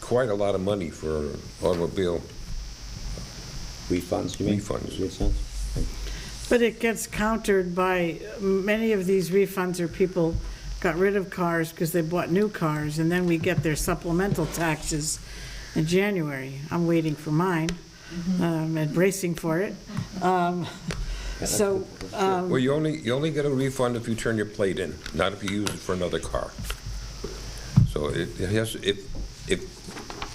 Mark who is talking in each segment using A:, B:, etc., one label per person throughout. A: quite a lot of money for automobile.
B: Refunds, you mean?
A: Refunds.
C: But it gets countered by, many of these refunds are people got rid of cars because they bought new cars, and then we get their supplemental taxes in January. I'm waiting for mine,
D: Mm-hmm.
C: um, and bracing for it. Um, So, um,
A: Well, you only, you only get a refund if you turn your plate in, not if you use it for another car. So it it has, if, if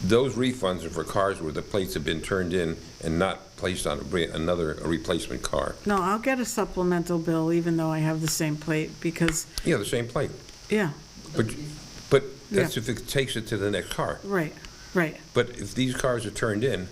A: those refunds are for cars where the plates have been turned in and not placed on a re- another a replacement car.
C: no, I'll get a supplemental bill even though I have the same plate, because,
A: Yeah, the same plate.
C: yeah,
A: But, but that's if it takes it to the next car.
C: right, right.
A: But if these cars are turned in,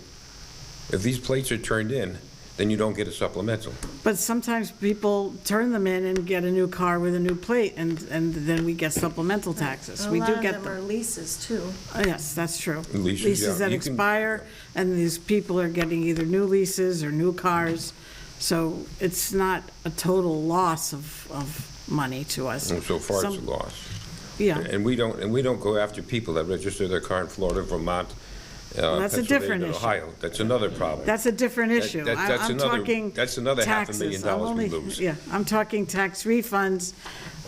A: if these plates are turned in, then you don't get a supplemental.
C: But sometimes people turn them in and get a new car with a new plate, and, and then we get supplemental taxes. We do
D: A lot
C: get
D: of them are
C: them.
D: leases, too.
C: Oh, Yes, that's true.
A: Leases, yeah.
C: that
A: You can-
C: expire, and these people are getting either new leases or new cars. So it's not a total loss of, of money to us.
A: And so far, it's a
C: Some-
A: loss.
C: Yeah,
A: And we don't, and we don't go after people that register their car in Florida, Vermont, uh,
C: that's a different
A: Pennsylvania,
C: issue.
A: Ohio. That's another problem.
C: that's a different
A: That-
C: issue.
A: that-
C: I-
A: that's
C: I'm
A: another-
C: talking
A: that's another half a million
C: taxes. I'm
A: dollars we
C: only-
A: lose.
C: Yeah, I'm talking tax refunds,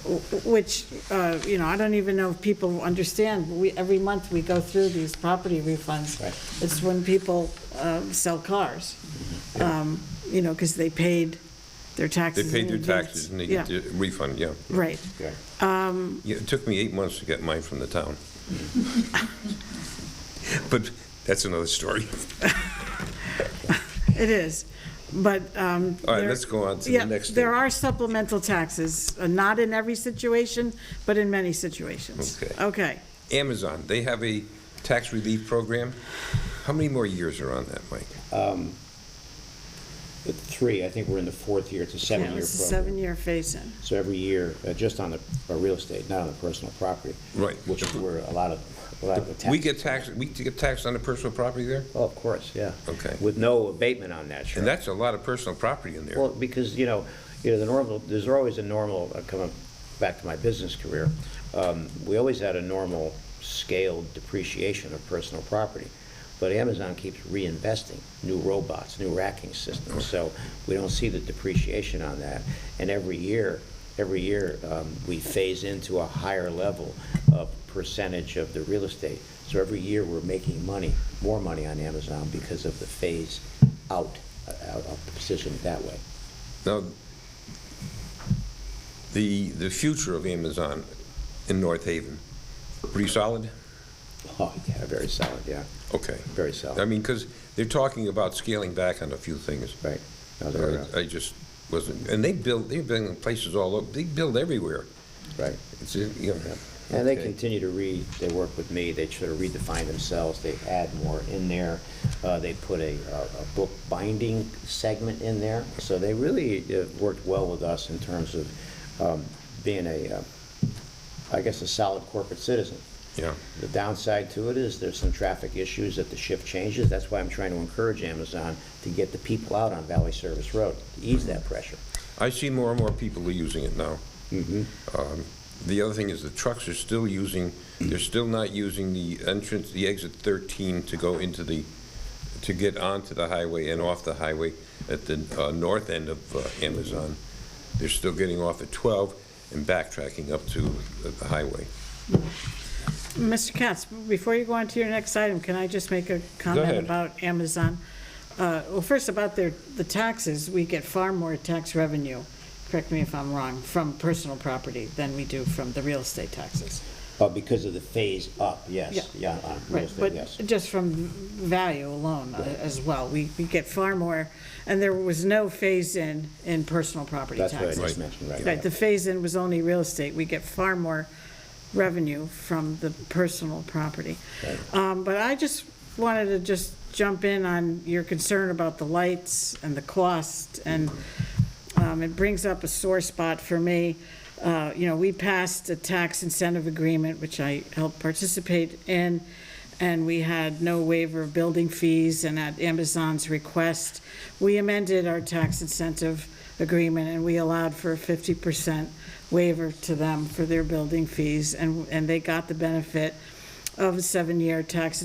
C: w- w- which, uh, you know, I don't even know if people understand. We, every month, we go through these property refunds.
B: Right.
C: It's when people uh, sell cars, um, you know, because they paid
A: Mm-hmm. They
C: their taxes.
A: paid
C: in
A: their
C: advance.
A: taxes and they get
C: Yeah,
A: the refund, yeah.
C: right.
B: Okay.
A: Yeah, It took me eight months to get mine from the town. But that's another story.
C: It is, but. um,
A: All right,
C: there-
A: let's go on to the
C: yeah,
A: next
C: There
A: thing.
C: are supplemental taxes, uh, not in every situation, but in many situations.
A: Okay.
C: Okay.
A: Amazon, they have a tax relief program. How many more years are on that, Mike?
B: The Three, I think we're in the fourth year, it's a
C: Yeah,
B: seven-year program.
C: It was a seven-year phase-in.
B: So every year, uh, just on the uh, real estate, not on the personal property.
A: Right.
B: Which is where a lot of, a lot of the tax.
A: We get taxed, we get taxed on the personal property there?
B: Oh, of course, yeah.
A: Okay.
B: With no abatement on that, sure.
A: And that's a lot of personal property in there.
B: Well, because, you know, you know, the normal, there's always a normal, uh, coming back to my business career, um, we always had a normal scaled depreciation of personal property. But Amazon keeps reinvesting, new robots, new racking systems, so we don't see the depreciation on that. And every year, every year, um, we phase into a higher level of percentage of the real estate. So every year, we're making money, more money on Amazon because of the phase out, uh, out of the position that way.
A: Now, the, the future of Amazon in North Haven, pretty solid?
B: Oh, yeah, very solid, yeah,
A: Okay.
B: very
A: I
B: solid,
A: mean, because they're talking about scaling back on a few things.
B: right. No, they're, uh,
A: I I just wasn't, and they build, they're building places all over, they build everywhere.
B: uh, Right.
A: It's, you know.
B: And they
A: okay.
B: continue to read, they work with me, they sort of redefine themselves, they add more in there. Uh, They put a, a a book binding segment in there, so they really uh, worked well with us in terms of um, being a, uh, I guess, a solid corporate citizen.
A: Yeah.
B: The downside to it is there's some traffic issues that the shift changes. That's why I'm trying to encourage Amazon to get the people out on Valley Service Road, to ease that pressure.
A: I see more and more people are using it now. Um, The other thing is the trucks are still using, they're still not using the entrance, the exit 13 to go into the, to get onto the highway and off the highway at the uh, north end of uh, Amazon. They're still getting off at 12 and backtracking up to the highway.
C: Mr. Katz, before you go on to your next item, can I just make a comment
A: ahead.
C: about Amazon? Uh, Well, first about their, the taxes, we get far more tax revenue, correct me if I'm wrong, from personal property than we do from the real estate taxes.
B: Uh, Because of the phase up,
C: Yeah.
B: yes, yeah, on real
C: Right,
B: estate, yes.
C: but just from value alone uh, as well, we, we get far more, and there was no phase-in in personal property
B: That's what I
C: taxes.
B: just mentioned, right.
C: Right, the phase-in was only real estate, we get far more revenue from the personal property. Um, but I just wanted to just jump in on your concern about the lights and the cost, and, um, it brings up a sore spot for me. Uh, you know, we passed a tax incentive agreement, which I helped participate in, and we had no waiver of building fees, and at Amazon's request, we amended our tax incentive agreement, and we allowed for a fifty percent waiver to them for their building fees, and, and they got the benefit of a seven-year tax